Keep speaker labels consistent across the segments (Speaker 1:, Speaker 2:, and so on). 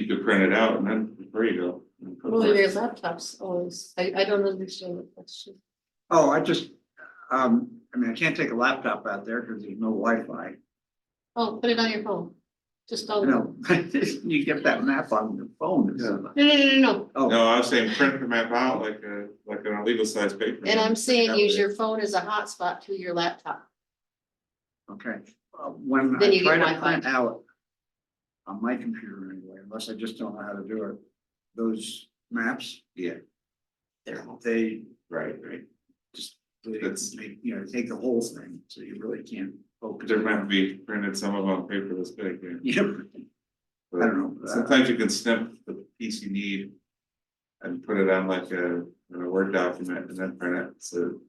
Speaker 1: could print it out and then there you go. And put it
Speaker 2: Well, your
Speaker 1: there.
Speaker 2: laptop's always, I, I don't understand the question.
Speaker 3: Oh, I just, um, I mean, I can't take a laptop out there because there's no Wi-Fi.
Speaker 2: Oh, put it on your phone. Just
Speaker 3: I
Speaker 2: on. No,
Speaker 3: know, you get that map on the phone. it's-
Speaker 1: Yeah.
Speaker 2: no, no, no, no.
Speaker 3: Oh,
Speaker 1: No, I was saying print the map out like a, like an illegal size paper.
Speaker 2: And I'm saying
Speaker 1: That
Speaker 2: use
Speaker 1: way-
Speaker 2: your phone as a hotspot to your laptop.
Speaker 3: okay. Uh, When
Speaker 2: Then you
Speaker 3: I
Speaker 2: get
Speaker 3: try
Speaker 2: Wi-Fi.
Speaker 3: to print out on my computer anyway, unless I just don't know how to do it, those maps,
Speaker 1: Yeah,
Speaker 3: they,
Speaker 1: right, right.
Speaker 3: they,
Speaker 1: That's-
Speaker 3: they, you know, take the whole thing, so you really can't focus.
Speaker 1: There might be printed some of them on paper this big, yeah.
Speaker 3: Yeah, I don't know.
Speaker 1: Sometimes you can snip the piece you need. And put it on like a, in a Word document and then print it, so.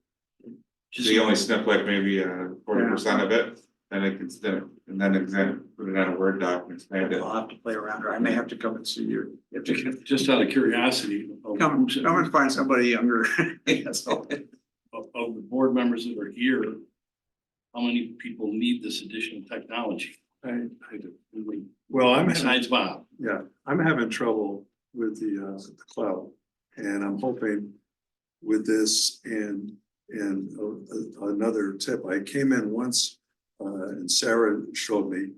Speaker 1: So you only snip like maybe uh forty percent of it, then it can snip, and then exam, put it on a Word document, expand it.
Speaker 3: I'll have to play around, or I may have to come and see you. You have to come-
Speaker 4: Just out of curiosity. of-
Speaker 3: Come, come and find somebody younger. That's all.
Speaker 4: Of, of the board members that are here, how many people need this additional technology?
Speaker 5: I, I do.
Speaker 4: Really,
Speaker 5: Well, I'm, having-
Speaker 4: Besides Bob,
Speaker 5: yeah, I'm having trouble with the, uh, the cloud. And I'm hoping with this and, and uh, uh, another tip, I came in once, uh, and Sarah showed me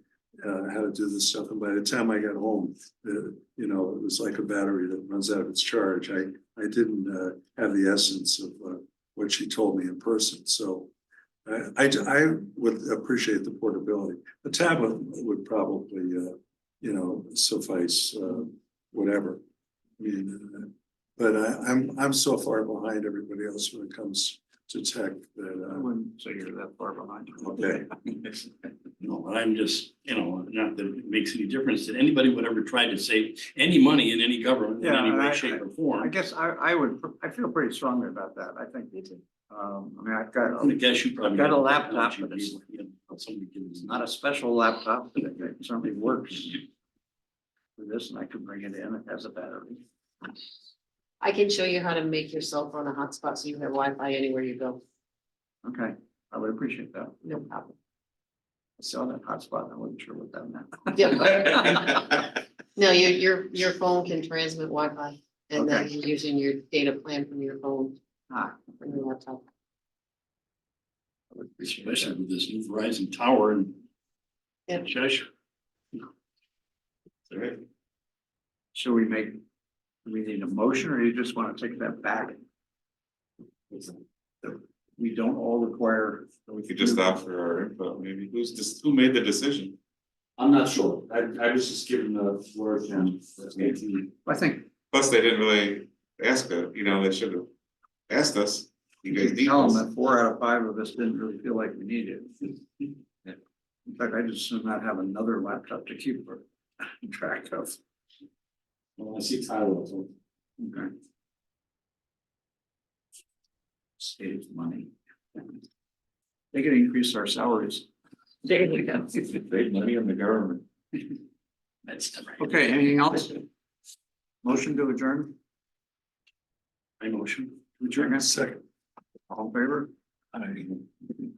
Speaker 5: uh, how to do this stuff. And by the time I got home, uh, you know, it was like a battery that runs out of its charge. I, I didn't, uh, have the essence of, uh, what she told me in person. So I, I, I would appreciate the portability. The tablet would probably, uh, you know, suffice, uh, whatever. I mean, uh, but I, I'm, I'm so far behind everybody else when it comes to tech that
Speaker 3: I
Speaker 5: I
Speaker 3: wouldn't say you're that far behind.
Speaker 5: Okay.
Speaker 4: you know, but I'm just, you know, not that it makes any difference that anybody would ever try to save any money in any government in
Speaker 3: Yeah,
Speaker 4: any
Speaker 3: I-
Speaker 4: way, shape or
Speaker 3: I
Speaker 4: form.
Speaker 3: guess I, I would, I feel pretty strongly about that. I think, um, I mean, I've got,
Speaker 4: I guess you probably.
Speaker 3: I've got a
Speaker 4: have
Speaker 3: laptop,
Speaker 4: technology
Speaker 3: but it's-
Speaker 4: to be able to- somebody can-
Speaker 3: not a special laptop, but it it certainly works. For this, and I could bring it in, it has a battery.
Speaker 2: I can show you how to make your cell phone a hotspot so you have Wi-Fi anywhere you go.
Speaker 3: Okay, I would appreciate that.
Speaker 2: No problem.
Speaker 3: I saw that hotspot, and I wasn't sure what that meant.
Speaker 2: Yeah. No, your, your, your phone can transmit Wi-Fi and then you're using your data plan from your phone, uh,
Speaker 3: Ah,
Speaker 2: from your laptop.
Speaker 3: I would appreciate
Speaker 4: Especially
Speaker 3: that.
Speaker 4: with this new Verizon tower in
Speaker 2: Yeah.
Speaker 4: Cheshire.
Speaker 1: Alright.
Speaker 3: Should we make, do we need a motion, or you just want to take that back? We don't all require.
Speaker 1: We could just uh, offer our input, maybe, who's just, who made the decision?
Speaker 6: I'm not sure. I, I was just given the floor of him.
Speaker 3: I think
Speaker 1: Plus, they didn't really ask us, you know, they should have asked us. You
Speaker 3: You
Speaker 1: guys
Speaker 3: can
Speaker 1: need
Speaker 3: tell
Speaker 1: us.
Speaker 3: them that four out of five of us didn't really feel like we needed it. In fact, I just should not have another laptop to keep track of.
Speaker 6: When I see Tyler, I think,
Speaker 3: Okay. Saves money. They could increase our salaries.
Speaker 1: Save money on the government.
Speaker 4: That's the right.
Speaker 3: Okay, anything else? Motion to adjourn,
Speaker 4: My motion.
Speaker 3: adjourn,
Speaker 5: second.
Speaker 3: all in favor?